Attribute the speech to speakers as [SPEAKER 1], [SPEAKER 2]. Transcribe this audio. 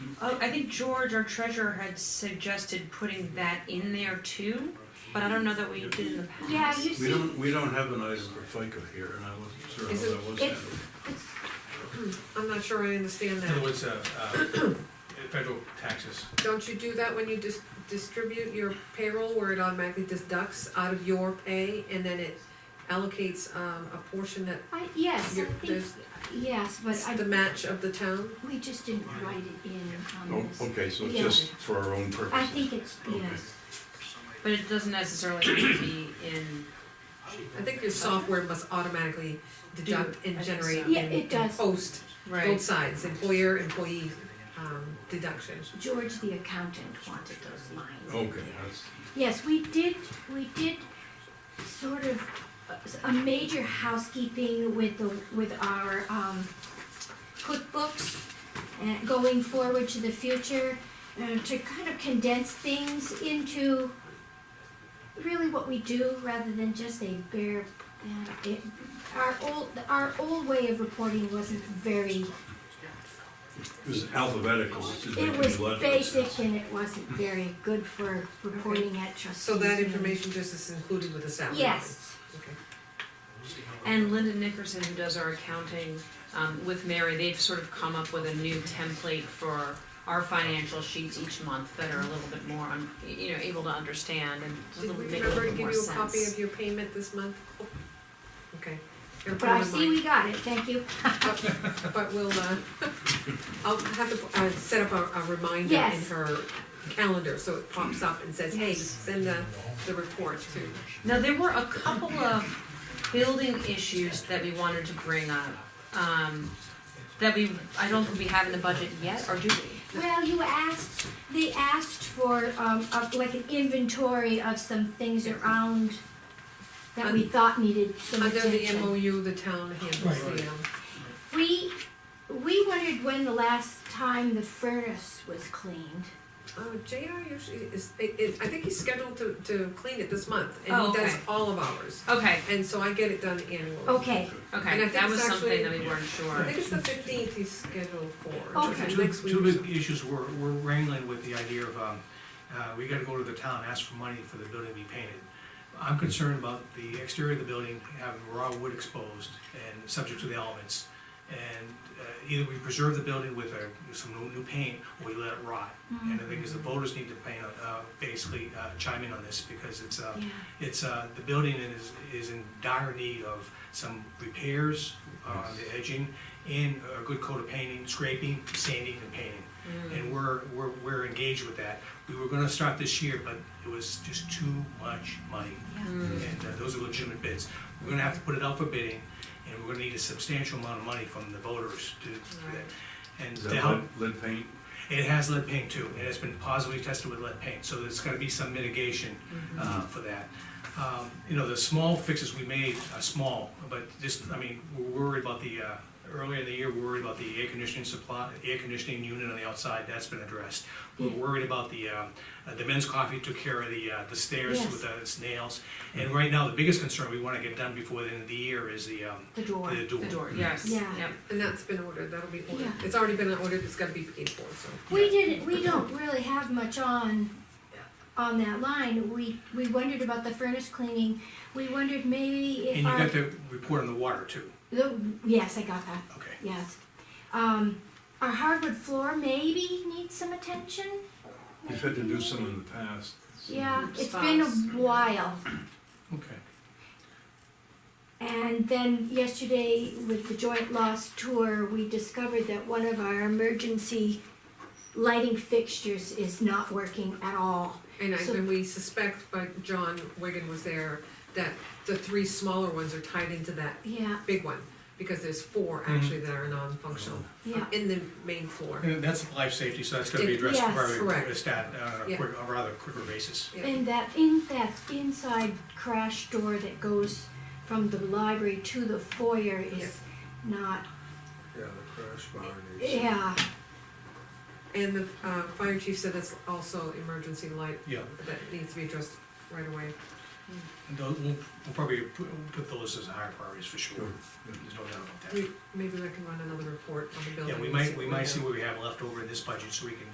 [SPEAKER 1] Oh, I think George, our treasurer, had suggested putting that in there too, but I don't know that we did in the past.
[SPEAKER 2] Yeah, you
[SPEAKER 3] We
[SPEAKER 2] see,
[SPEAKER 3] don't, we don't have an item for FICA here, and I wasn't sure
[SPEAKER 4] Is
[SPEAKER 3] how
[SPEAKER 4] it-
[SPEAKER 3] that was
[SPEAKER 2] it's-
[SPEAKER 3] handled.
[SPEAKER 4] I'm not sure I understand
[SPEAKER 5] In other
[SPEAKER 4] that.
[SPEAKER 5] words, uh, uh, federal taxes.
[SPEAKER 4] Don't you do that when you dis- distribute your payroll where it automatically deducts out of your pay and then it allocates, um, a portion that,
[SPEAKER 2] I, yes, I
[SPEAKER 4] your,
[SPEAKER 2] think,
[SPEAKER 4] there's
[SPEAKER 2] yes, but I,
[SPEAKER 4] the match of the town?
[SPEAKER 2] we just didn't write it in on this.
[SPEAKER 3] Oh, okay, so it's
[SPEAKER 2] Yeah.
[SPEAKER 3] just for our own purposes.
[SPEAKER 2] I think it's,
[SPEAKER 3] Okay.
[SPEAKER 2] yes,
[SPEAKER 1] But it doesn't necessarily have to be in,
[SPEAKER 4] I think your software must automatically deduct
[SPEAKER 1] I
[SPEAKER 4] and
[SPEAKER 1] think
[SPEAKER 4] generate
[SPEAKER 1] so.
[SPEAKER 4] and
[SPEAKER 2] Yeah, it
[SPEAKER 4] and
[SPEAKER 2] does.
[SPEAKER 4] post both
[SPEAKER 1] right,
[SPEAKER 4] sides, employer, employee, um, deduction.
[SPEAKER 2] George, the accountant, wanted those lines.
[SPEAKER 3] Okay, that's,
[SPEAKER 2] Yes, we did, we did sort of uh, a- a major housekeeping with the, with our um, cookbooks and going forward to the future, uh, to kind of condense things into really what we do rather than just a bare, uh, it, our old, our old way of reporting wasn't very,
[SPEAKER 3] it was alphabetical, which is
[SPEAKER 2] it
[SPEAKER 3] making
[SPEAKER 2] was
[SPEAKER 3] a lot of
[SPEAKER 2] basic
[SPEAKER 3] sense.
[SPEAKER 2] and it wasn't very good for reporting at trustees.
[SPEAKER 4] So that
[SPEAKER 2] meetings.
[SPEAKER 4] information just is included with the salary?
[SPEAKER 2] Yes.
[SPEAKER 4] Okay.
[SPEAKER 1] and Linda Nickerson, who does our accounting, um, with Mary, they've sort of come up with a new template for our financial sheets each month that are a little bit more, um, you know, able to understand and a
[SPEAKER 4] Did
[SPEAKER 1] little,
[SPEAKER 4] we
[SPEAKER 1] make a little
[SPEAKER 4] remember to
[SPEAKER 1] bit
[SPEAKER 4] give
[SPEAKER 1] more
[SPEAKER 4] you
[SPEAKER 1] sense.
[SPEAKER 4] a copy of your payment this month? Okay. I'll put
[SPEAKER 2] But
[SPEAKER 4] it
[SPEAKER 2] I
[SPEAKER 4] in
[SPEAKER 2] see
[SPEAKER 4] mine.
[SPEAKER 2] we got it, thank you.
[SPEAKER 4] But- But we'll, uh, I'll have to, uh, set up a, a reminder in
[SPEAKER 2] Yes.
[SPEAKER 4] her calendar, so it pops up and says, hey, send the, the report to.
[SPEAKER 1] Now, there were a couple of building issues that we wanted to bring up, um, that we, I don't think we have in the budget yet, or do we?
[SPEAKER 2] Well, you asked, they asked for, um, of like an inventory of some things around that we thought needed some
[SPEAKER 4] Under the
[SPEAKER 2] attention.
[SPEAKER 4] MOU, the town handles the, um,
[SPEAKER 2] We, we wondered when the last time the furnace was cleaned.
[SPEAKER 4] oh, JR usually is, it, it, I think he's scheduled to, to clean it this month, and
[SPEAKER 1] Oh,
[SPEAKER 4] he does
[SPEAKER 1] okay.
[SPEAKER 4] all of ours.
[SPEAKER 1] Okay,
[SPEAKER 4] And so I get it done annually.
[SPEAKER 2] Okay,
[SPEAKER 4] And I
[SPEAKER 1] okay,
[SPEAKER 4] think
[SPEAKER 1] that was
[SPEAKER 4] it's
[SPEAKER 1] something
[SPEAKER 4] actually-
[SPEAKER 1] that we weren't
[SPEAKER 4] I
[SPEAKER 1] sure.
[SPEAKER 4] think it's the fifteenth he's scheduled for.
[SPEAKER 2] Okay.
[SPEAKER 4] so
[SPEAKER 5] Two,
[SPEAKER 4] Next week.
[SPEAKER 5] two
[SPEAKER 4] or so.
[SPEAKER 5] big issues we're, we're wrangling with the idea of, um, uh, we gotta go to the town, ask for money for the building to be painted. I'm concerned about the exterior of the building having raw wood exposed and subject to the elements. And uh, either we preserve the building with a, with some new, new paint, or we let it rot. And the thing is, the voters need to paint, uh, basically uh, chime in on this, because it's, uh,
[SPEAKER 2] yeah.
[SPEAKER 5] it's, uh, the building is, is in dire need of some repairs uh, on the edging and a good coat of painting, scraping, sanding and painting.
[SPEAKER 1] Mm.
[SPEAKER 5] And we're, we're, we're engaged with that. We were gonna start this year, but it was just too much money.
[SPEAKER 1] Hmm. Mm.
[SPEAKER 5] And uh, those are legitimate bids. We're gonna have to put it out for bidding and we're gonna need a substantial amount of money from the voters to do that. And
[SPEAKER 3] Is
[SPEAKER 5] to
[SPEAKER 3] that
[SPEAKER 5] help,
[SPEAKER 3] lead, lead paint?
[SPEAKER 5] it has lead paint too, and it's been positively tested with lead paint, so there's gotta be some mitigation,
[SPEAKER 2] Mm-hmm.
[SPEAKER 5] uh, for that. Um, you know, the small fixes we made are small, but just, I mean, we're worried about the, uh, earlier in the year, we we're worried about the air conditioning supply, air conditioning unit on the outside, that's been addressed. We're worried about the, uh, uh, the men's coffee took care of the, uh, the stairs
[SPEAKER 2] Yes.
[SPEAKER 5] with the nails. And right now, the biggest concern we wanna get done before the end of the year is the, um,
[SPEAKER 2] The door.
[SPEAKER 5] the door.
[SPEAKER 1] The door, yes,
[SPEAKER 2] Yeah.
[SPEAKER 1] yep.
[SPEAKER 4] And that's been ordered, that'll be ordered.
[SPEAKER 2] Yeah.
[SPEAKER 4] It's already been ordered, it's gotta be paid for, so.
[SPEAKER 2] We didn't, we don't really have much on, on that line. We, we wondered about the furnace cleaning. We wondered maybe
[SPEAKER 5] And
[SPEAKER 2] if
[SPEAKER 5] you
[SPEAKER 2] our.
[SPEAKER 5] got the report on the water too,
[SPEAKER 2] the- Yes, I got that.
[SPEAKER 5] okay.
[SPEAKER 2] Yes. Um, our hardwood floor maybe needs some attention.
[SPEAKER 3] We've had to do some in the past.
[SPEAKER 2] Yeah, it's been a
[SPEAKER 1] Spots.
[SPEAKER 2] while.
[SPEAKER 5] Okay.
[SPEAKER 2] And then yesterday with the joint loss tour, we discovered that one of our emergency lighting fixtures is not working at all.
[SPEAKER 4] And I,
[SPEAKER 2] So-
[SPEAKER 4] and we suspect, but John Wigan was there, that the three smaller ones are tied into that
[SPEAKER 2] Yeah,
[SPEAKER 4] big one, because there's four
[SPEAKER 5] Mm-hmm.
[SPEAKER 4] actually that are non-functional Uh,
[SPEAKER 2] yeah.
[SPEAKER 4] in the main floor.
[SPEAKER 5] And that's life safety, so that's gonna be addressed
[SPEAKER 2] Yes.
[SPEAKER 5] probably
[SPEAKER 4] Correct.
[SPEAKER 5] at a stat, uh, on
[SPEAKER 4] Yeah.
[SPEAKER 5] a quick, a rather quicker basis.
[SPEAKER 4] Yeah.
[SPEAKER 2] And that in that inside crash door that goes from the library to the foyer is not,
[SPEAKER 6] Yeah, the crash bar needs.
[SPEAKER 2] yeah.
[SPEAKER 4] And the, uh, fire chief said that's also emergency light
[SPEAKER 5] Yeah,
[SPEAKER 4] that needs to be addressed right away.
[SPEAKER 5] and tho- we'll, we'll probably put, we'll put those as higher priorities for sure,
[SPEAKER 3] Sure.
[SPEAKER 5] there's no doubt about that.
[SPEAKER 4] We, maybe I can run another report on the building.
[SPEAKER 5] Yeah, we
[SPEAKER 4] and see
[SPEAKER 5] might,
[SPEAKER 4] what
[SPEAKER 5] we might
[SPEAKER 4] have.
[SPEAKER 5] see what we have left over in this budget, so we can